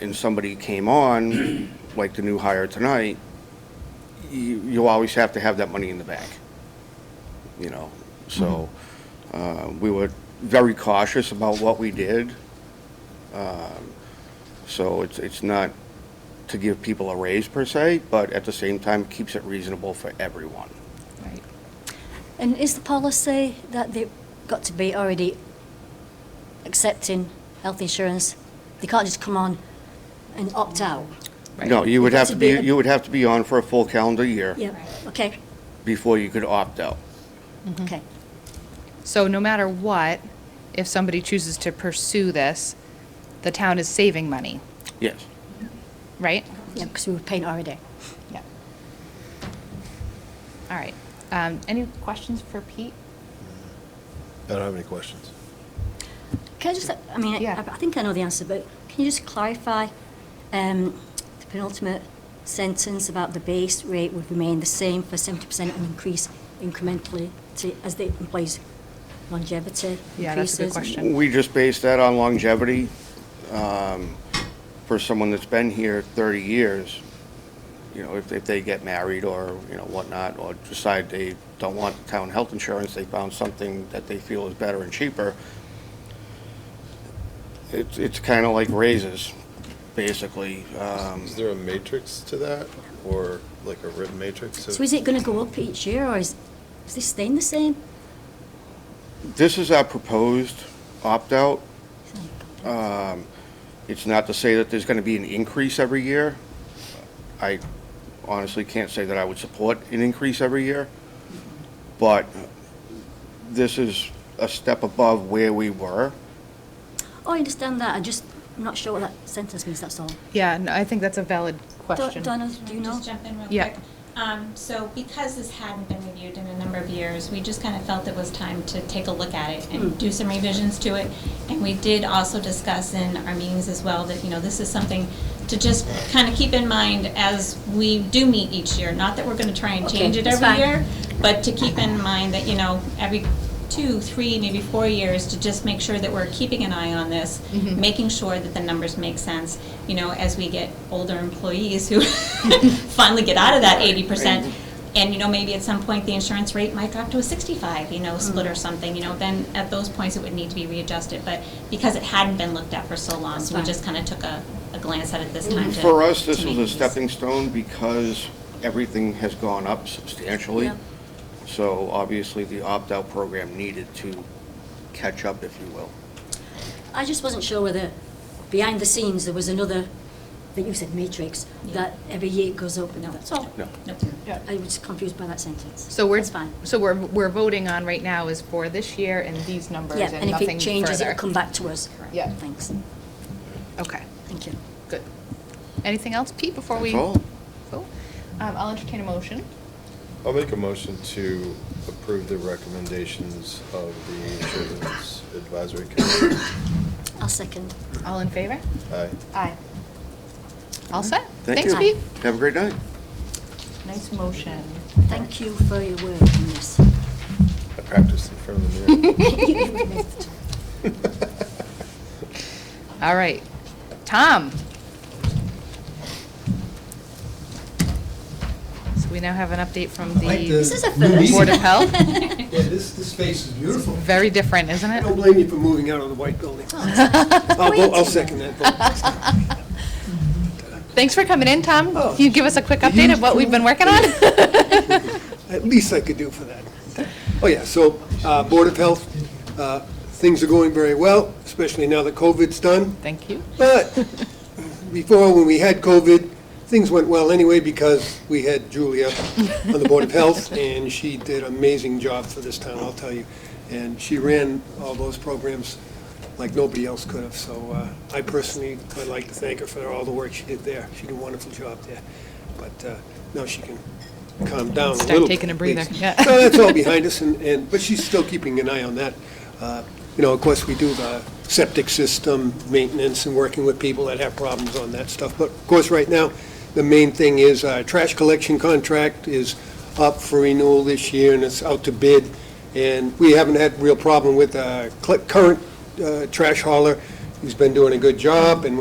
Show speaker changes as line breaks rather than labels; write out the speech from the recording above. and somebody came on, like the new hire tonight, you, you always have to have that money in the bank, you know? So, uh, we were very cautious about what we did. Um, So it's, it's not to give people a raise per se, but at the same time, keeps it reasonable for everyone.
Right. And is the policy that they've got to be already accepting health insurance? They can't just come on and opt out?
No, you would
It
have
has
to
to be
be,
a-
you would have to be on for a full calendar year
Yeah, okay,
before you could opt out.
Mm-hmm.
okay.
So no matter what, if somebody chooses to pursue this, the town is saving money,
Yes.
right?
Yeah, because we were paying already.
Yeah. All right. Um, any questions for Pete?
I don't have any questions.
Can I just, uh, I mean, I-
Yeah.
I think I know the answer, but can you just clarify um, the penultimate sentence about the base rate would remain the same for 70% and increase incrementally to, as the employee's longevity increases?
Yeah, that's a good question.
We just base that on longevity. um, For someone that's been here 30 years, you know, if, if they get married or, you know, whatnot, or decide they don't want town health insurance, they found something that they feel is better and cheaper, it's, it's kind of like raises, basically. Um,
Is there a matrix to that, or like a written matrix? of-
So is it going to go up each year, or is, is this staying the same?
This is our proposed opt-out. Um, It's not to say that there's going to be an increase every year. I honestly can't say that I would support an increase every year, but this is a step above where we were.
Oh, I understand that, I just, I'm not sure what that sentence means, that's all.
Yeah, no, I think that's a valid question.
Donna, do you
Can I
know?
Just jump in real
Yeah.
quick. Um, so because this hadn't been reviewed in a number of years, we just kind of felt it was time to take a look at it
Hmm.
and do some revisions to it. And we did also discuss in our meetings as well that, you know, this is something to just kind of keep in mind as we do meet each year. Not that we're going to try and
Okay,
change it
that's
every
fine.
year, but to keep in mind that, you know, every two, three, maybe four years, to just make sure that we're keeping an eye on this,
Mm-hmm.
making sure that the numbers make sense, you know, as we get older employees who finally get out of that eighty percent. And, you know, maybe at some point, the insurance rate might drop to a sixty-five, you know,
Mm.
split or something, you know, then at those points, it would need to be readjusted. But because it hadn't been looked at for so long,
That's
we
fine. Mm-hmm.
just kind of took a, a glance at it this time to.
For us, this
to
was
make
a
these-
stepping stone because everything has gone up substantially.
Yeah.
So obviously, the opt-out program needed to catch up, if you will.
I just wasn't sure whether, behind the scenes, there was another, I think you said matrix,
Yeah.
that every year it goes up, and
No.
that's all.
No.
Nope.
I was confused by that sentence.
So we're,
That's fine.
so we're, we're voting on right now is for this year and these numbers
Yeah,
and
and if it
nothing
changes, it'll
further.
come back to us.
Yeah.
Thanks,
Okay,
thank you.
good. Anything else, Pete, before we?
That's all.
Cool. Um, I'll entertain a motion.
I'll make a motion to approve the recommendations of the Insurance Advisory Committee.
I'll second.
All in favor?
Aye.
Aye. All set?
Thank
Thanks,
you.
Pete.
Have a great night.
Nice motion.
Thank you for your work on this.
Uh,
I practiced in front of the mirror.
All right. Tom? So we now have an update from
I like
the
This is a
New
first.
Board of Health.
Yeah, this, this space is beautiful.
Very different, isn't
I
it?
don't blame you for moving out of the white building.
oh,
I'll, vote- I'll second that vote.
Thanks for coming in, Tom.
Oh.
Can you give us a quick update of what we've been working on?
At least I could do for that. Oh, yeah, so, uh, Board of Health, uh, things are going very well, especially now that COVID's done.
Thank you.
But before, when we had COVID, things went well anyway because we had Julia on the Board of Health, and she did an amazing job for this town, I'll tell you. And she ran all those programs like nobody else could have, so uh, I personally would like to thank her for all the work she did there. She did a wonderful job there. But uh, now she can calm down a little.
Start taking a
bit,
breather,
please.
yeah.
So that's all behind us, and, and, but she's still keeping an eye on that. Uh, You know, of course, we do the septic system maintenance and working with people that have problems on that stuff. But of course, right now, the main thing is our trash collection contract is up for renewal this year, and it's out to bid. And we haven't had real problem with our cl- current uh, trash hauler. He's been doing a good job, and